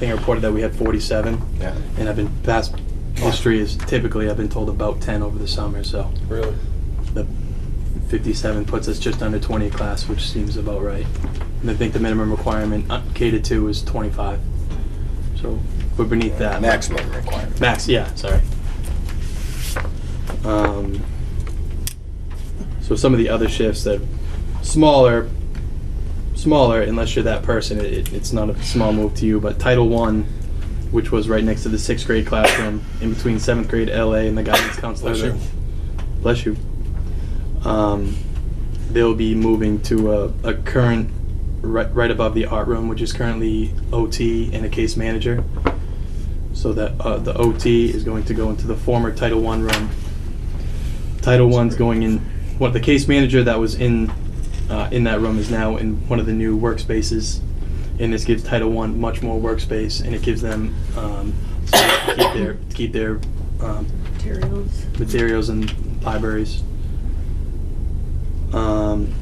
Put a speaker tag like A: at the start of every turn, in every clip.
A: thing reported that we had 47.
B: Yeah.
A: And I've been, past history is typically, I've been told about 10 over the summer, so
B: Really?
A: the 57 puts us just under 20 a class, which seems about right. And I think the minimum requirement uh, catered to is 25. So we're beneath that.
B: Maximum requirement.
A: Max, yeah, sorry. Um, so some of the other shifts that smaller, smaller, unless you're that person, it- it, it's not a small move to you. But Title One, which was right next to the sixth grade classroom, in between seventh grade LA and the guidance counselor.
B: Bless you.
A: Bless you. Um, they'll be moving to a, a current right, right above the art room, which is currently OT and a case manager. So that uh, the OT is going to go into the former Title One room. Title One's going in. What the case manager that was in uh, in that room is now in one of the new workspaces, and this gives Title One much more workspace, and it gives them um, space to keep their to keep their um,
C: materials.
A: materials and libraries. Um,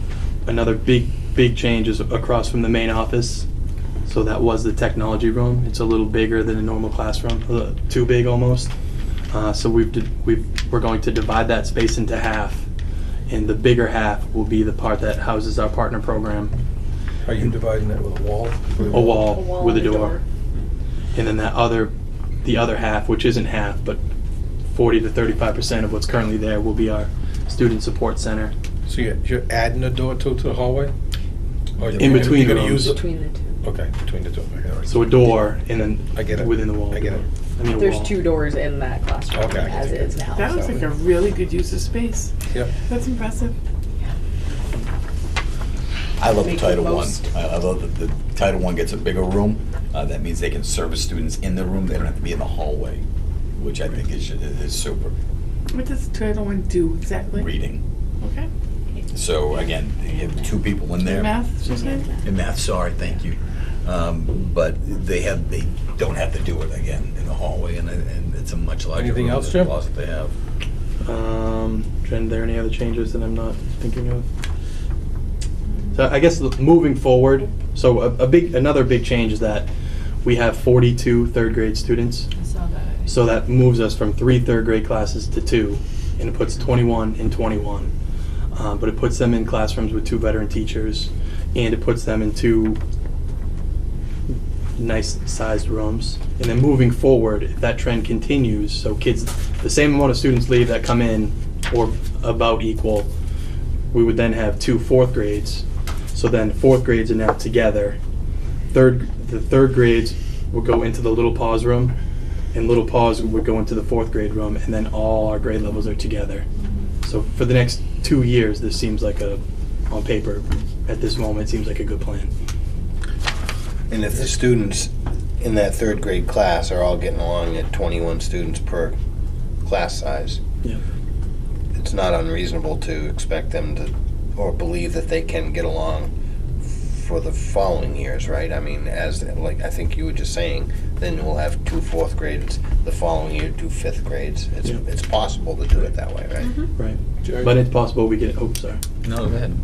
A: another big, big change is across from the main office. So that was the technology room. It's a little bigger than a normal classroom, a little- too big almost. Uh, so we've, di- we've, we're going to divide that space into half. And the bigger half will be the part that houses our partner program,
B: Are you dividing that with a wall?
A: a wall
C: A wall
A: with a
C: and a
A: door.
C: door.
A: And then that other, the other half, which isn't half, but 40 to 35% of what's currently there will be our student support center.
B: So you're, you're adding a door to, to the hallway? Or you're-
A: In between
B: You're
A: the
B: gonna
A: rooms.
B: use it?
C: Between the two.
B: Okay, between the two. Okay, all right.
A: So a door and then
B: I get it.
A: within the wall.
B: I get it.
A: I mean, a
C: There's
A: wall.
C: two doors in that classroom
B: Okay.
C: as is now.
D: That was
C: so.
D: like a really good use of space.
B: Yep.
D: That's impressive.
E: I love the
C: Make the
E: Title One.
C: most.
E: I I love that the Title One gets a bigger room. Uh, that means they can service students in the room. They don't have to be in the hallway, which I think is, is super
D: What does Title One do exactly?
E: reading.
D: Okay.
E: So again, you have two people in there.
D: Math, she said.
E: In math, sorry, thank you. Um, but they have, they don't have to do it again in the hallway and, and it's a much larger
B: Anything
E: room
B: else,
E: than the
B: Jim?
E: closet they have.
A: Um, Jen, are there any other changes that I'm not thinking of? So I guess l- moving forward, so a, a big, another big change is that we have 42 third grade students.
C: I saw that.
A: So that moves us from three third grade classes to two, and it puts 21 and 21. Uh, but it puts them in classrooms with two veteran teachers, and it puts them in two nice sized rooms. And then moving forward, if that trend continues, so kids, the same amount of students leave that come in, or about equal, we would then have two fourth grades. So then fourth grades are now together. Third, the third grades would go into the little pause room, and little pause would go into the fourth grade room, and then all our grade levels are together. So for the next two years, this seems like a, on paper, at this moment, seems like a good plan.
F: And if the students in that third grade class are all getting along at 21 students per class size,
A: Yeah.
F: it's not unreasonable to expect them to, or believe that they can get along for the following years, right? I mean, as, like, I think you were just saying, then we'll have two fourth grades, the following year, two fifth grades. It's,
A: Yeah.
F: it's possible to do it that way, right?
A: Right.
B: Jerry?
A: But it's possible we get, oh, sorry.
E: No, go ahead.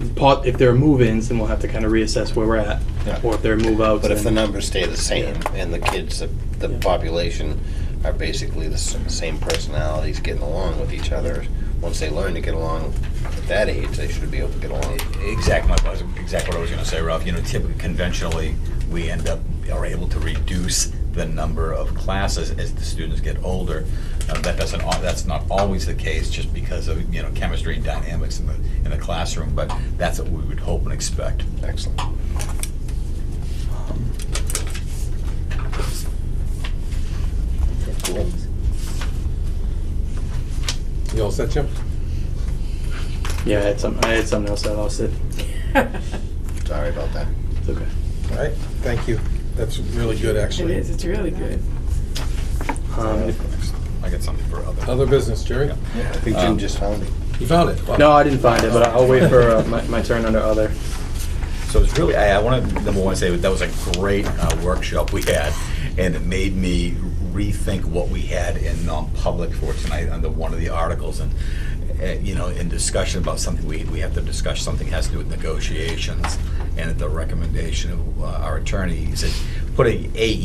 A: It's po- If there are move-ins, then we'll have to kind of reassess where we're at.
F: Yeah.
A: Or if there are move-outs.
F: But if the
A: then-
F: numbers stay the same and the kids, the, the
A: Yeah.
F: population are basically the s- same personalities getting along with each other, once they learn to get along at that age, they should be able to get along.
E: Exact, my, exact what I was gonna say, Ralph. You know, typically, conventionally, we end up, are able to reduce the number of classes as the students get older. Uh, that doesn't, al- that's not always the case, just because of, you know, chemistry and dynamics in the, in the classroom, but that's what we would hope and expect.
F: Excellent.
C: Cool.
B: You all set, Jim?
A: Yeah, I had some, I had something else, I lost it.
F: Sorry about that.
A: It's okay.
B: All right, thank you. That's really good,
D: It
B: actually.
D: is. It's really good.
A: Um, if-
E: I got something for other.
B: Other business, Jerry?
F: I think Jim just found it.
B: You found it? Wow.
A: No, I didn't find it, but I'll wait for uh, my, my turn under other.
E: So it's really, I, I want to, number one, say that was a great uh, workshop we had, and it made me rethink what we had in non-public for tonight under one of the articles, and, uh, you know, in discussion about something, we, we have to discuss something has to do with negotiations, and at the recommendation of uh, our attorney, he said, put a, a